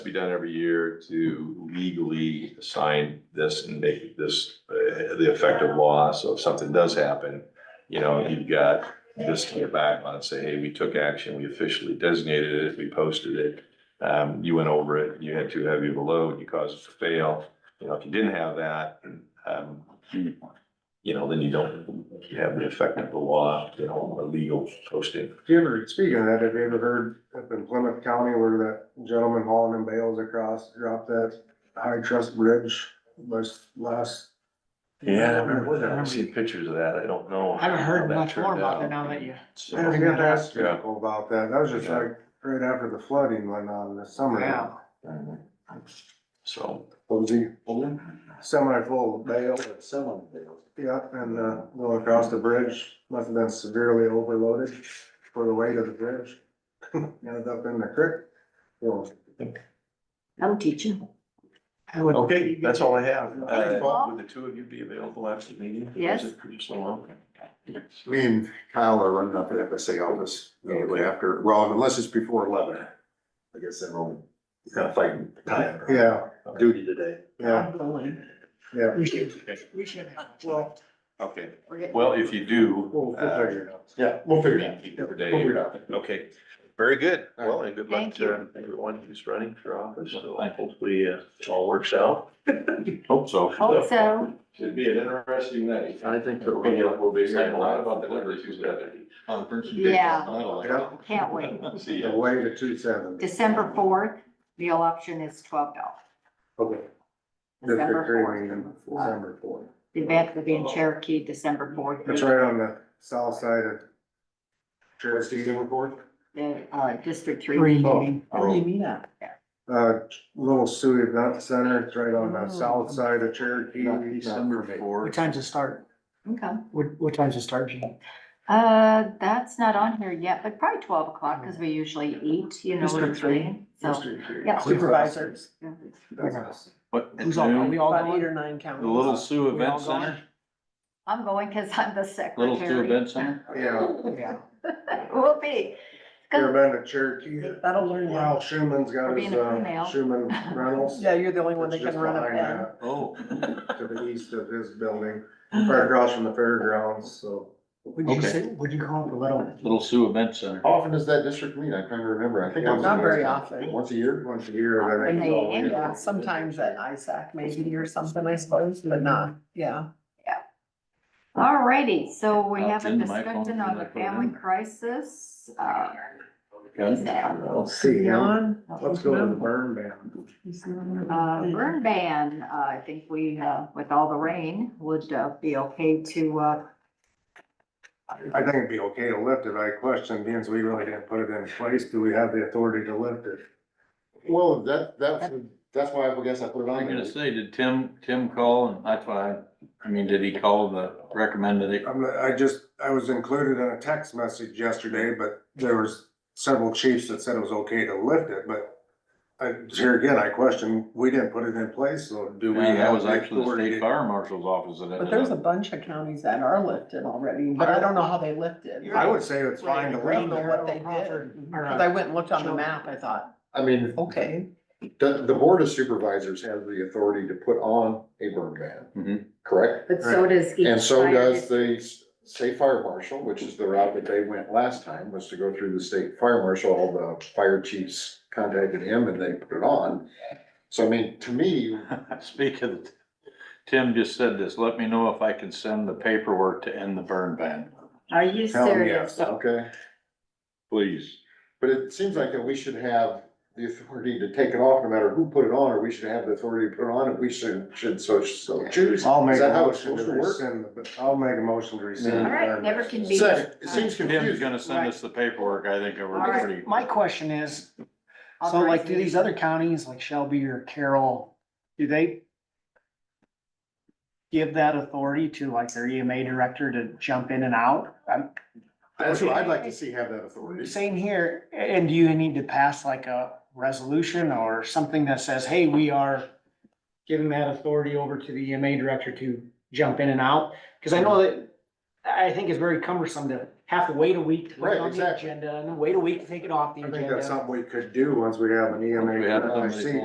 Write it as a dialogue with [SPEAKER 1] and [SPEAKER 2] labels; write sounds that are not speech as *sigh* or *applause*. [SPEAKER 1] to be done every year to legally assign this and make this uh, the effective law. So if something does happen, you know, you've got this to get back on and say, hey, we took action, we officially designated it, we posted it. Um, you went over it, you had too heavy of a load, you caused it to fail. You know, if you didn't have that, um, you know, then you don't have the effect of the law, you know, a legal posting.
[SPEAKER 2] Have you ever, speaking of that, have you ever heard up in Plymouth County where that gentleman hauling them bales across dropped that high trust bridge was last?
[SPEAKER 1] Yeah, I remember that. I've seen pictures of that. I don't know.
[SPEAKER 3] I haven't
[SPEAKER 1] how
[SPEAKER 3] heard
[SPEAKER 1] that
[SPEAKER 3] much more
[SPEAKER 1] turned
[SPEAKER 3] about
[SPEAKER 1] out.
[SPEAKER 3] it now that you,
[SPEAKER 1] So-
[SPEAKER 2] I got to ask
[SPEAKER 1] Yeah.
[SPEAKER 2] people about that. That was just
[SPEAKER 1] Yeah.
[SPEAKER 2] like right after the flooding went on this summer.
[SPEAKER 3] wow,
[SPEAKER 1] uh, So.
[SPEAKER 2] Was he semi full of bale? Yeah, and, uh, going across the bridge, must have been severely overloaded for the weight of the bridge. *laughs* Ended up in the creek. Well,
[SPEAKER 4] I'm teaching.
[SPEAKER 3] I would.
[SPEAKER 1] Okay, that's all I have.
[SPEAKER 4] Thanks,
[SPEAKER 1] Uh,
[SPEAKER 4] Bob.
[SPEAKER 1] would the two of you be available after the meeting?
[SPEAKER 4] Yes.
[SPEAKER 1] Is it pretty slow?
[SPEAKER 5] Me and Kyle are running up at FSA office immediately after, well, unless it's before eleven. I guess then we'll kind of fighting time. or
[SPEAKER 2] yeah,
[SPEAKER 5] Duty today.
[SPEAKER 2] yeah, yeah.
[SPEAKER 3] We should, we should have.
[SPEAKER 2] Well,
[SPEAKER 1] Okay,
[SPEAKER 4] We're getting-
[SPEAKER 1] well, if you do.
[SPEAKER 2] we'll, we'll figure it out.
[SPEAKER 5] Yeah, we'll figure
[SPEAKER 1] uh,
[SPEAKER 5] Figure
[SPEAKER 1] Dave,
[SPEAKER 5] it out.
[SPEAKER 1] Okay, very good. Well, and good luck
[SPEAKER 4] Thank
[SPEAKER 1] to everyone who's running for office. So hopefully uh, it all works out. Hope so.
[SPEAKER 4] Hope so.
[SPEAKER 1] Should be an interesting night.
[SPEAKER 5] I think
[SPEAKER 1] We'll be, we'll be hearing a lot about the numbers Tuesday.
[SPEAKER 4] Yeah,
[SPEAKER 2] Yeah,
[SPEAKER 4] can't wait.
[SPEAKER 1] See
[SPEAKER 2] the
[SPEAKER 1] ya.
[SPEAKER 2] way to two seventy.
[SPEAKER 4] December fourth, meal option is twelve dollars.
[SPEAKER 2] Okay. District
[SPEAKER 4] December
[SPEAKER 2] hearing in
[SPEAKER 4] fourth. Uh,
[SPEAKER 2] December fourth.
[SPEAKER 4] The event will be in
[SPEAKER 6] Oh.
[SPEAKER 4] Cherokee, December fourth.
[SPEAKER 2] It's right on the south side of. Cherokee December fourth?
[SPEAKER 4] The, uh, District Three
[SPEAKER 3] Three
[SPEAKER 4] meeting.
[SPEAKER 1] Oh,
[SPEAKER 3] meeting. What do you mean that?
[SPEAKER 2] Uh, Little Sioux Event Center, it's right on the south side of Cherokee.
[SPEAKER 3] What time's it start?
[SPEAKER 4] Okay.
[SPEAKER 3] What, what time's it start, Jean?
[SPEAKER 4] Uh, that's not on here yet, but probably twelve o'clock, cause we usually eat, you know.
[SPEAKER 3] District
[SPEAKER 4] it's
[SPEAKER 3] three.
[SPEAKER 4] late, So. Yeah.
[SPEAKER 3] Supervisors.
[SPEAKER 6] What,
[SPEAKER 3] Who's all, are we all
[SPEAKER 7] About eight
[SPEAKER 3] going?
[SPEAKER 7] or nine counties.
[SPEAKER 6] the Little Sioux
[SPEAKER 3] We all
[SPEAKER 6] Event
[SPEAKER 3] going?
[SPEAKER 6] Center,
[SPEAKER 4] I'm going, cause I'm the
[SPEAKER 6] Little Sioux
[SPEAKER 4] secretary.
[SPEAKER 6] Event Center?
[SPEAKER 2] Yeah,
[SPEAKER 4] *laughs*
[SPEAKER 3] Yeah.
[SPEAKER 4] Will be.
[SPEAKER 2] you ever been to Cherokee?
[SPEAKER 7] That'll learn
[SPEAKER 2] Well,
[SPEAKER 7] well.
[SPEAKER 2] Schuman's
[SPEAKER 4] We're
[SPEAKER 2] got his,
[SPEAKER 4] being a crew now.
[SPEAKER 2] uh, Schuman
[SPEAKER 4] *laughs*
[SPEAKER 2] Reynolds.
[SPEAKER 7] Yeah, you're the only one that
[SPEAKER 2] It's
[SPEAKER 7] can
[SPEAKER 2] just
[SPEAKER 7] run up
[SPEAKER 2] behind
[SPEAKER 7] that.
[SPEAKER 6] Oh,
[SPEAKER 2] that, To the east of his building,
[SPEAKER 3] *gasps*
[SPEAKER 2] right across from the fairgrounds, so.
[SPEAKER 3] Would you
[SPEAKER 6] Okay.
[SPEAKER 3] say, would you call it a little?
[SPEAKER 6] Little Sioux Event Center.
[SPEAKER 5] How often does that district meet? I'm trying to remember. I think. once a
[SPEAKER 7] Not
[SPEAKER 5] year.
[SPEAKER 7] very often.
[SPEAKER 5] Once a year?
[SPEAKER 2] Once a year, I
[SPEAKER 4] And
[SPEAKER 2] think.
[SPEAKER 4] they end
[SPEAKER 7] Yeah, sometimes at ISAC maybe or something, I suppose, but not, yeah.
[SPEAKER 4] Alrighty, so we
[SPEAKER 6] I'll
[SPEAKER 4] have a
[SPEAKER 6] send my phone
[SPEAKER 4] discussion
[SPEAKER 6] to
[SPEAKER 4] on
[SPEAKER 6] my
[SPEAKER 4] the family
[SPEAKER 6] program.
[SPEAKER 4] crisis. uh,
[SPEAKER 6] Okay.
[SPEAKER 4] now,
[SPEAKER 2] I'll see him.
[SPEAKER 7] Yawn.
[SPEAKER 2] Let's go to the burn ban.
[SPEAKER 4] uh, Burn ban, uh, I think we, uh, with all the rain, would uh, be okay to, uh,
[SPEAKER 2] I think it'd be okay to lift it. I question, being as we really didn't put it in place, do we have the authority to lift it?
[SPEAKER 5] Well, that, that's, that's why I guess I put
[SPEAKER 6] I'm
[SPEAKER 5] it on
[SPEAKER 6] gonna
[SPEAKER 5] there.
[SPEAKER 6] say, did Tim, Tim call and that's why, I mean, did he call the recommended it?
[SPEAKER 2] I'm, I just, I was included in a text message yesterday, but there was several chiefs that said it was okay to lift it, but I, here again, I question, we didn't put it in place, so do we
[SPEAKER 6] Yeah,
[SPEAKER 2] have?
[SPEAKER 6] that was
[SPEAKER 2] the
[SPEAKER 6] actually the
[SPEAKER 2] authority
[SPEAKER 6] state fire marshal's office that
[SPEAKER 7] But
[SPEAKER 6] ended
[SPEAKER 7] there's a
[SPEAKER 6] up.
[SPEAKER 7] bunch of counties that are lifted already, but I don't know how they lifted.
[SPEAKER 2] I would say it's fine to
[SPEAKER 7] I don't
[SPEAKER 2] lift
[SPEAKER 7] know
[SPEAKER 2] it.
[SPEAKER 7] what they did. Cause I went and looked on the map, I thought,
[SPEAKER 5] I mean,
[SPEAKER 7] okay,
[SPEAKER 5] the, the board of supervisors has the authority to put on a burn ban,
[SPEAKER 2] Mm-hmm.
[SPEAKER 6] Mhm.
[SPEAKER 5] correct?
[SPEAKER 4] but so does each.
[SPEAKER 5] And so
[SPEAKER 4] fire
[SPEAKER 5] does
[SPEAKER 4] dis-
[SPEAKER 5] the s- state fire marshal, which is the route that they went last time, was to go through the state fire marshal, all the fire chiefs contacted him and they put it on. So I mean, to me,
[SPEAKER 6] *laughs* Speak of, the- Tim just said this, let me know if I can send the paperwork to end the burn ban,
[SPEAKER 4] Are you
[SPEAKER 2] Hell,
[SPEAKER 4] serious?
[SPEAKER 5] okay,
[SPEAKER 6] please.
[SPEAKER 5] but it seems like that we should have the authority to take it off, no matter who put it on, or we should have the authority to put it on, and we should, should so, so choose.
[SPEAKER 2] I'll make
[SPEAKER 5] Is
[SPEAKER 2] a
[SPEAKER 5] that how it's
[SPEAKER 2] motion to
[SPEAKER 5] supposed to work?
[SPEAKER 2] rescind, the- I'll make a motion to rescind.
[SPEAKER 5] Yeah.
[SPEAKER 2] the
[SPEAKER 4] All right,
[SPEAKER 2] burn
[SPEAKER 4] never
[SPEAKER 2] ban.
[SPEAKER 4] can be.
[SPEAKER 5] Second, it
[SPEAKER 6] Tim's
[SPEAKER 5] seems confusing.
[SPEAKER 6] gonna send us the paperwork, I think, over
[SPEAKER 4] Alright.
[SPEAKER 6] pretty.
[SPEAKER 3] My question is, So like, do these other counties, like Shelby or Carroll, do they give that authority to like their EMA director to jump in and out? Um,
[SPEAKER 5] That's what I'd like to see have that authority.
[SPEAKER 3] Same here, and do you need to pass like a resolution or something that says, hey, we are giving that authority over to the E EMA director to jump in and out? Because I know that, I think it's very cumbersome to have to wait a week to put
[SPEAKER 5] Right,
[SPEAKER 3] it on the
[SPEAKER 5] exactly.
[SPEAKER 3] agenda and wait a week to take it off the
[SPEAKER 2] I
[SPEAKER 3] agenda.
[SPEAKER 2] think that's something we could do once we have an E
[SPEAKER 6] Once we have
[SPEAKER 2] EMA.
[SPEAKER 6] somebody-